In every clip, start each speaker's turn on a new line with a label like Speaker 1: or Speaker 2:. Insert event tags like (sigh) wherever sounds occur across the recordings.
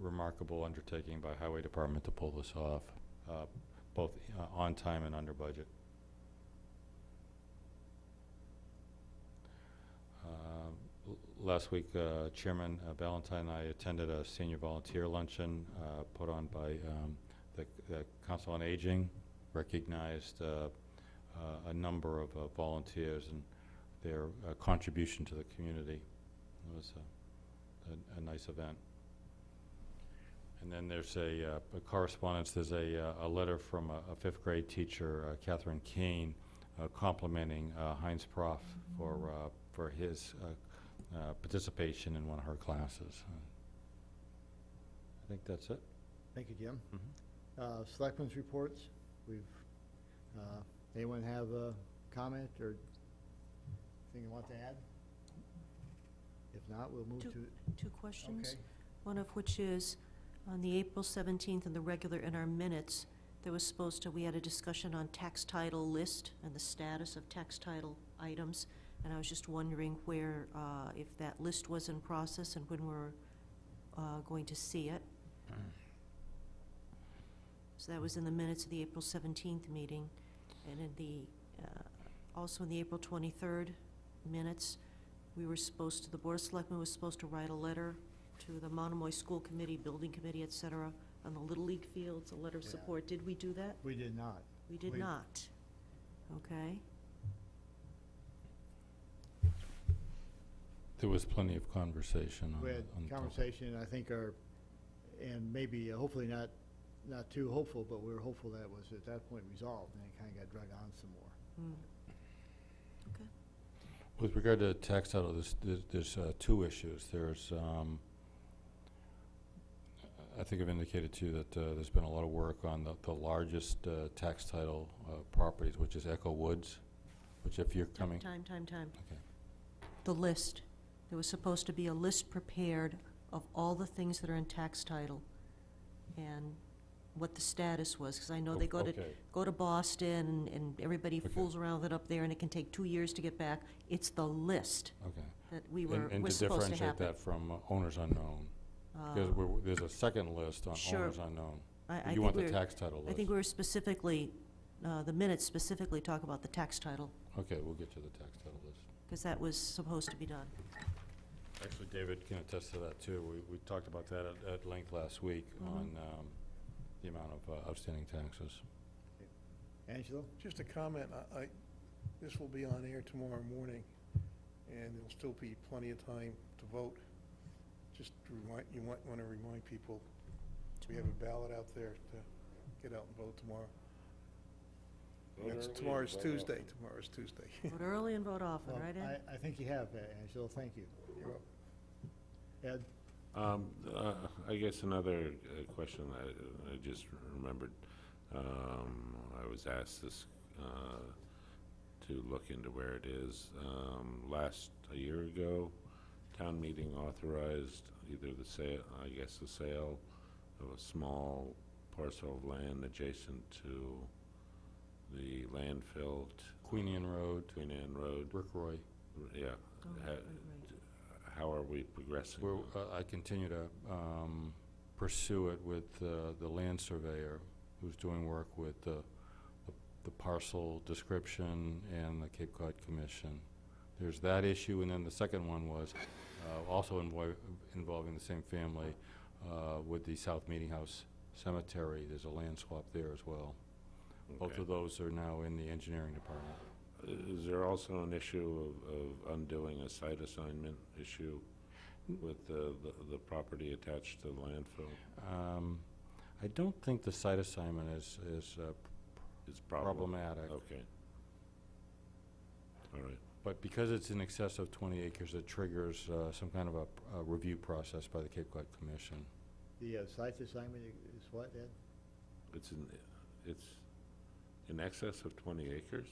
Speaker 1: remarkable undertaking by Highway Department to pull this off, uh, both uh, on time and under budget. Um, l- Last week, uh, Chairman uh, Ballantyne and I attended a senior volunteer luncheon uh, put on by um, the the Council on Aging, recognized uh, uh, a number of uh, volunteers and their uh, contribution to the community. It was a- a, a nice event. And then there's a uh, a correspondence, there's a, uh, a letter from a a fifth grade teacher, uh, Catherine Kane, uh, complimenting uh, Heinz Prof for, uh, for his uh, uh, participation in one of her classes. Uh, I think that's it.
Speaker 2: Thank you, Jim. Uh, Selectmen's reports, we've, uh, anyone have a comment or thing you want to add? If not, we'll move
Speaker 3: Two
Speaker 2: to,
Speaker 3: Two questions,
Speaker 2: okay.
Speaker 3: one of which is, on the April 17th and the regular in our minutes, there was supposed to, we had a discussion on tax title list and the status of tax title items, and I was just wondering where, uh, if that list was in process and when we're uh, going to see it. So that was in the minutes of the April 17th meeting, and in the, uh, also in the April 23rd minutes, we were supposed to, the Board of Selectmen was supposed to write a letter to the Monomoy School Committee, Building Committee, et cetera, on the Little League fields, a letter of
Speaker 2: Yeah.
Speaker 3: support. Did we do that?
Speaker 2: We did not.
Speaker 3: We did
Speaker 2: We-
Speaker 3: not. Okay,
Speaker 1: There was plenty of conversation on.
Speaker 2: We had
Speaker 1: on the topic.
Speaker 2: conversation, I think are, and maybe, uh, hopefully not, not too hopeful, but we were hopeful that was at that point resolved, and it kind of got dragged on some more.
Speaker 3: Hmm.
Speaker 1: With regard to tax title, there's, there's- there's uh, two issues. There's, um, I think I've indicated to you that uh, there's been a lot of work on the, the largest uh, tax title uh, properties, which is Echo Woods, which if you're
Speaker 3: Time,
Speaker 1: coming,
Speaker 3: time, time, time.
Speaker 1: Okay.
Speaker 3: The list. There was supposed to be a list prepared of all the things that are in tax title and what the status was, because I know they go to,
Speaker 1: Okay.
Speaker 3: go to Boston and everybody
Speaker 1: Okay.
Speaker 3: fools around with it up there and it can take two years to get back. It's the list
Speaker 1: okay.
Speaker 3: that we
Speaker 1: And-
Speaker 3: were,
Speaker 1: and
Speaker 3: was supposed to
Speaker 1: differentiate
Speaker 3: happen.
Speaker 1: that from uh, owners unknown, because
Speaker 3: Uh,
Speaker 1: we're- there's a second list on
Speaker 3: Sure.
Speaker 1: owners unknown.
Speaker 3: I, I
Speaker 1: You
Speaker 3: think
Speaker 1: want the
Speaker 3: we were,
Speaker 1: tax title
Speaker 3: I
Speaker 1: list.
Speaker 3: think we were specifically, uh, the minutes specifically talk about the tax title,
Speaker 1: Okay, we'll get to the tax title list.
Speaker 3: because that was supposed to be done.
Speaker 1: Actually, David can attest to that, too. We, we talked about that at, at length last week
Speaker 3: Mhm.
Speaker 1: on, um, the amount of uh, outstanding taxes.
Speaker 2: Angelo?
Speaker 4: Just a comment, I, I, this will be on air tomorrow morning, and there'll still be plenty of time to vote. Just to remind, you might want to remind people, we have a ballot out there to get out and vote tomorrow. That's, tomorrow's Tuesday, tomorrow's Tuesday.
Speaker 3: Vote early and vote often,
Speaker 2: Well,
Speaker 3: right, Ed?
Speaker 2: Oh, I, I think you have, uh, Angelo, thank you.
Speaker 4: (laughs) You're up.
Speaker 2: Ed?
Speaker 5: Um, uh, I guess another uh, question I, I just remembered, um, I was asked this, uh, to look into where it is. Um, last, a year ago, town meeting authorized either the sale, I guess the sale of a small parcel of land adjacent to the landfill t-
Speaker 1: Queenian Road,
Speaker 5: between Ann Road,
Speaker 1: Rick Roy,
Speaker 3: Oh,
Speaker 5: yeah.
Speaker 3: right, right,
Speaker 5: ha-
Speaker 3: right.
Speaker 5: How are we progressing?
Speaker 1: where uh, I continue to, um, pursue it with, uh, the land surveyor who's doing work with the, the parcel description and the Cape Cod Commission. There's that issue, and then the second one was, uh, also invoi- involving the same family, uh, with the South Meeting House Cemetery. There's a land swap there as well. Both
Speaker 5: Okay.
Speaker 1: of those are now in the engineering department.
Speaker 5: Uh, Is there also an issue of, of undoing a site assignment issue with the, the- the property attached to the landfill?
Speaker 1: Um, I don't think the site assignment is, is uh,
Speaker 5: It's problem.
Speaker 1: problematic,
Speaker 5: Okay. All right,
Speaker 1: but because it's in excess of 20 acres, it triggers uh, some kind of a a review process by the Cape Cod Commission.
Speaker 2: The uh, site assignment is what, Ed?
Speaker 5: it's in, it's in excess of twenty acres?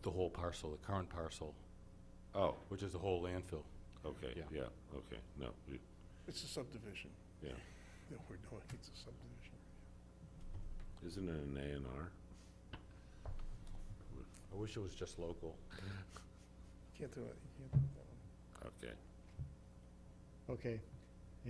Speaker 1: The whole parcel, the current parcel,
Speaker 5: Oh,
Speaker 1: which is the whole landfill.
Speaker 5: okay,
Speaker 1: Yeah.
Speaker 5: yeah, okay, no, we-
Speaker 4: It's a subdivision.
Speaker 5: Yeah.
Speaker 4: That we're doing, it's a subdivision.
Speaker 5: isn't it an A and R?
Speaker 1: I wish it was just local.
Speaker 4: Can't do it, you can't do that one.
Speaker 5: Okay,
Speaker 2: Okay,